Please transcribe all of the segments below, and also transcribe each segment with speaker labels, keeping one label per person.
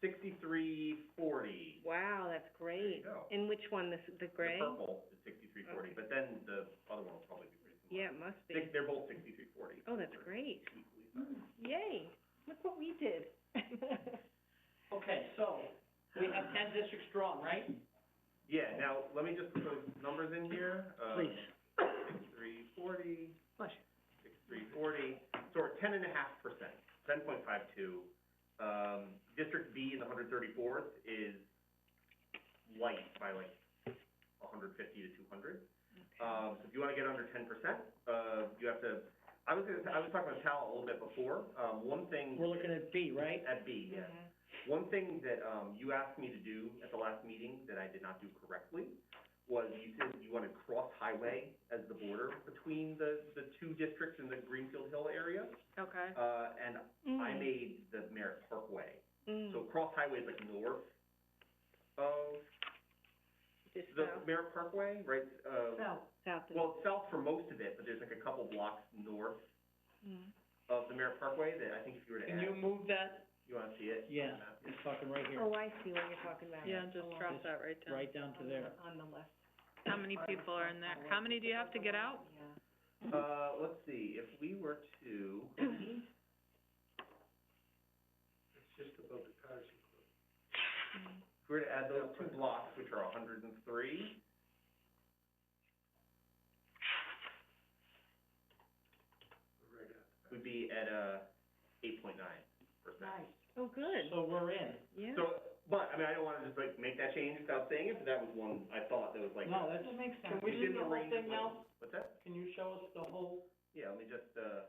Speaker 1: sixty-three forty.
Speaker 2: Wow, that's great.
Speaker 1: go.
Speaker 2: In which one, this, the gray?
Speaker 1: The purple is sixty-three forty,
Speaker 2: Okay.
Speaker 1: but then the other one will probably be pretty
Speaker 2: Yeah,
Speaker 1: similar.
Speaker 2: it must
Speaker 1: Six,
Speaker 2: be.
Speaker 1: they're both sixty-three forty.
Speaker 2: Oh, that's great. Yay, look what we did.
Speaker 3: Okay, so, we have ten districts strong, right?
Speaker 1: Yeah, now, let me just put those numbers in here, uh,
Speaker 3: Please.
Speaker 1: six-three forty, six-three forty, so we're ten and a half percent, ten point five two. Um, District B in the hundred thirty-fourth is light by like hundred fifty to two hundred. Um, so if you wanna get under ten percent, uh, you have to, I was gonna, I was talking with Tal a little bit before, um, one thing.
Speaker 3: We're looking at B, right?
Speaker 1: At B, yeah.
Speaker 2: Mhm.
Speaker 1: One thing that, um, you asked me to do at the last meeting that I did not do correctly was you said you wanted cross highway as the border between the, the two districts in the Greenfield Hill area.
Speaker 2: Mm-hmm. Okay.
Speaker 1: Uh, and I
Speaker 3: Mm.
Speaker 1: made the Merritt Parkway.
Speaker 2: Mm,
Speaker 1: So cross highway is like north of
Speaker 2: just
Speaker 1: the
Speaker 2: south,
Speaker 1: Merritt Parkway, right? Uh,
Speaker 2: south of.
Speaker 1: well, it's south for most of it, but there's like a couple blocks north
Speaker 2: Mm.
Speaker 1: of the Merritt Parkway that I think if you were to
Speaker 3: Can you
Speaker 1: add,
Speaker 3: move that?
Speaker 1: you wanna see it?
Speaker 3: Yeah, it's fucking right here,
Speaker 2: Oh, I see what you're talking about.
Speaker 4: Yeah, just
Speaker 2: Along
Speaker 4: drop
Speaker 2: the-
Speaker 4: that right down.
Speaker 3: right down to there.
Speaker 2: On the left.
Speaker 4: How many people are in there? How many do you have to get out?
Speaker 2: Yeah.
Speaker 1: Uh, let's see, if we were to, if we were to add those two blocks, which are hundred and three, we'd be at, uh, eight point nine percent.
Speaker 2: Oh, good,
Speaker 3: So we're in.
Speaker 2: yeah.
Speaker 1: So, but, I mean, I don't wanna just like make that change without saying it, but that was one I thought that was like.
Speaker 3: No, that makes sense. Can we
Speaker 1: did
Speaker 3: do the whole
Speaker 1: range of
Speaker 3: thing
Speaker 1: like-
Speaker 3: now?
Speaker 1: What's that?
Speaker 3: Can you show us the whole,
Speaker 1: Yeah, let me just, uh,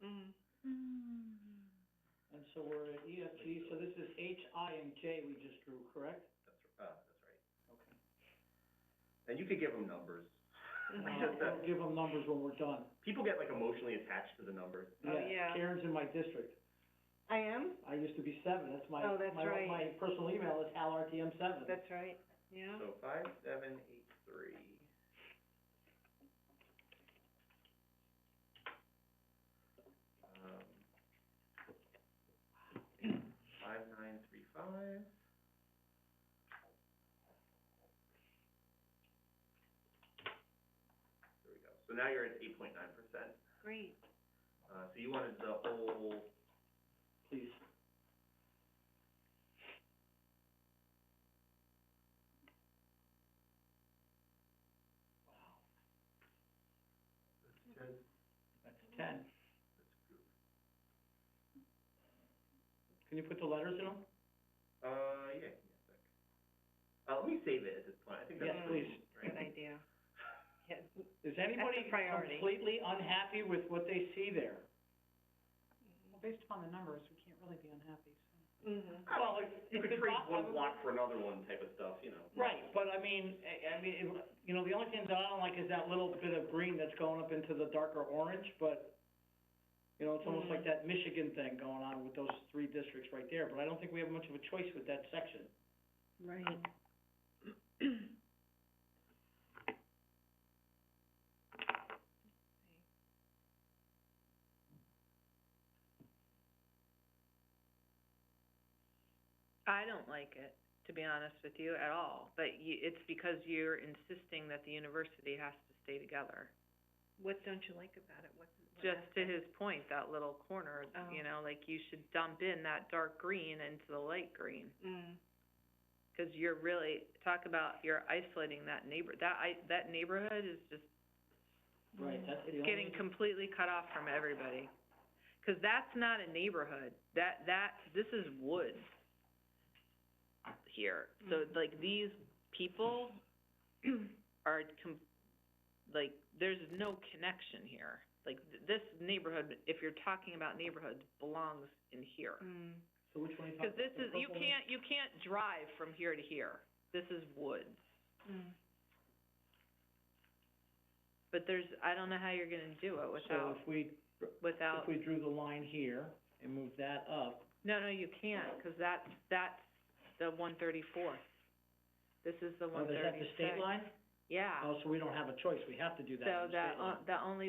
Speaker 2: Mm.
Speaker 3: and so we're at EFG, so this is H, I, and J we just drew, correct?
Speaker 1: that's, uh, that's right. And you could give them numbers.
Speaker 3: Uh, We'll give them numbers when we're done.
Speaker 1: People get like emotionally attached to the numbers.
Speaker 2: Oh, yeah.
Speaker 3: Karen's in my district.
Speaker 2: I am?
Speaker 3: I used to be seven, that's my,
Speaker 2: Oh, that's
Speaker 3: my,
Speaker 2: right.
Speaker 3: my personal email is halrtm seven.
Speaker 2: That's right, yeah.
Speaker 1: So five, seven, eight, three. Um, Five, nine, three, five. There we go. So now you're at eight point nine percent.
Speaker 2: Great.
Speaker 1: Uh, so you wanted the whole,
Speaker 3: Please. That's ten. Can you put the letters in them?
Speaker 1: uh, yeah, give me a sec. Uh, let me save it at this point. I think that's
Speaker 3: Yes,
Speaker 1: pretty,
Speaker 3: please.
Speaker 1: right?
Speaker 2: Good idea. Yeah,
Speaker 3: Is anybody
Speaker 2: priority.
Speaker 3: completely unhappy with what they see there?
Speaker 2: mhm.
Speaker 3: Well,
Speaker 1: You
Speaker 3: it
Speaker 1: could
Speaker 3: could
Speaker 1: trade
Speaker 3: not-
Speaker 1: one block for another one type of stuff, you know.
Speaker 3: Right, but I mean, I, I mean, it- you know, the only thing that I don't like is that little bit of green that's going up into the darker orange, but, you know, it's almost like
Speaker 2: Mhm.
Speaker 3: that Michigan thing going on with those three districts right there, but I don't think we have much of a choice with that section.
Speaker 2: Right.
Speaker 4: I don't like it, to be honest with you, at all, but you, it's because you're insisting that the university has to stay together.
Speaker 2: What don't you like about it? What's? what
Speaker 4: Just to
Speaker 2: aspect?
Speaker 4: his point, that little corner,
Speaker 2: Oh.
Speaker 4: you know, like you should dump in that dark green into the light green.
Speaker 2: Mm,
Speaker 4: Cause you're really, talk about, you're isolating that neighbor, that I, that neighborhood is just
Speaker 3: Right, that's the only.
Speaker 4: getting completely cut off from everybody. 'Cause that's not a neighborhood, that, that, this is woods here. So
Speaker 3: Mm-hmm.
Speaker 2: Mm.
Speaker 4: like these people are com- like, there's no connection here. Like th- this neighborhood, if you're talking about neighborhoods, belongs in here.
Speaker 2: mm,
Speaker 3: So which one are you talking
Speaker 4: Cause
Speaker 3: about?
Speaker 4: this
Speaker 3: The
Speaker 4: is, you
Speaker 3: purple one?
Speaker 4: can't, you can't drive from here to here. This is woods.
Speaker 2: mm.
Speaker 4: But there's, I don't know how you're gonna do it
Speaker 3: So
Speaker 4: without,
Speaker 3: if we,
Speaker 4: without
Speaker 3: if we drew the line here and moved that up,
Speaker 4: No, no, you can't, 'cause that's, that's the one thirty-four. This is the
Speaker 3: oh,
Speaker 4: one
Speaker 3: is that the
Speaker 4: thirty-six.
Speaker 3: state line?
Speaker 4: Yeah,
Speaker 3: Oh, so we don't have a choice, we have to do that
Speaker 4: so
Speaker 3: on the
Speaker 4: that,
Speaker 3: state line.
Speaker 4: o- the only